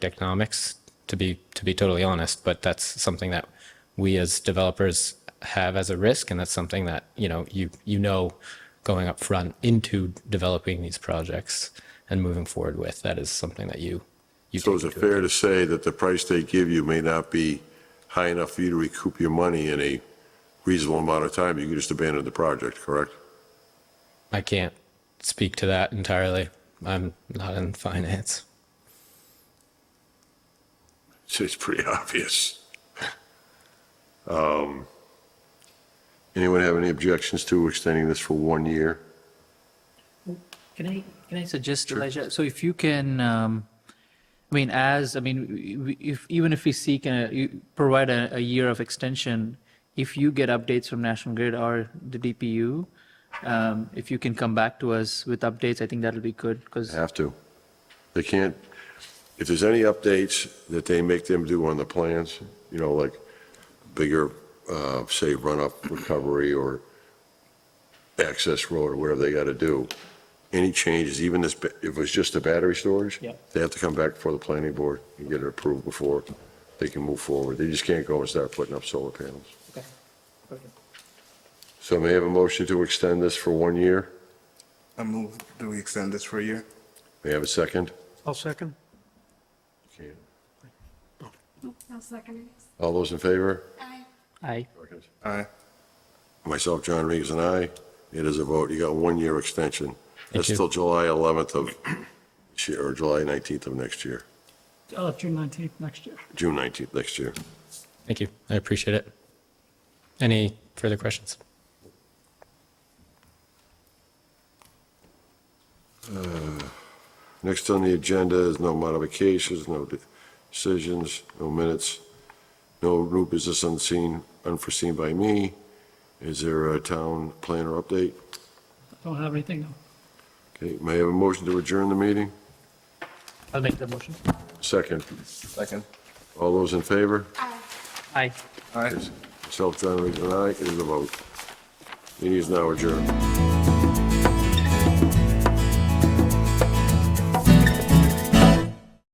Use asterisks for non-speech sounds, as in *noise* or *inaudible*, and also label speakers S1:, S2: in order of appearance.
S1: economics to be to be totally honest but that's something that we as developers have as a risk and that's something that you know you you know going up front into developing these projects and moving forward with that is something that you you
S2: So
S1: take
S2: is it
S1: into
S2: fair to say that the price they give you may not be high enough for you to recoup your money in a reasonable amount of time? You could just abandon the project, correct?
S1: I can't speak to that entirely I'm not in finance
S2: It's- It's pretty *laughs* obvious. Um, Anyone have any objections to extending this for one year?
S3: Can I, can I suggest, Elijah, so if you can, um, I mean, as, I mean, we- we- if, even if we seek, a- you provide a, a year of extension, if you get updates from National Grid or the DPU, um, if you can come back to us with updates, I think that'll be good, because,
S2: Have to. They can't, if there's any updates that they make them do on the plans, you know, like bigger, uh, say, run-up recovery or access road or whatever they got to do, any changes, even this, ba- if it was just the battery storage?
S3: Yeah.
S2: They have to come back before the planning board and get it approved before they can move forward. They just can't go and start putting up solar panels. So may I have a motion to extend this for one year?
S4: I move, do we extend this for a year?
S2: May I have a second?
S5: I'll second.
S6: I'll second it.
S2: All those in favor?
S6: Aye.
S3: I,
S4: Aye.
S2: Myself, John Regan, and I. It is a vote. You got one year extension. That's
S1: you.
S2: till July 11th of, this year, or July 19th of next year,
S5: Uh, June 19th next year.
S2: June 19th next year.
S1: thank you I appreciate it any further questions
S2: Next on the agenda is no modifications, no de- decisions, no minutes, no new business unseen, unforeseen by me. Is there a town planner update?
S5: Don't have anything.
S2: Okay, may I have a motion to adjourn the meeting?
S3: I'll make the motion.
S2: Second.
S4: Second.
S2: All those in favor?
S3: Aye.
S4: Aye.
S2: Myself, John Regan, and I. It is a vote. Meeting is now adjourned.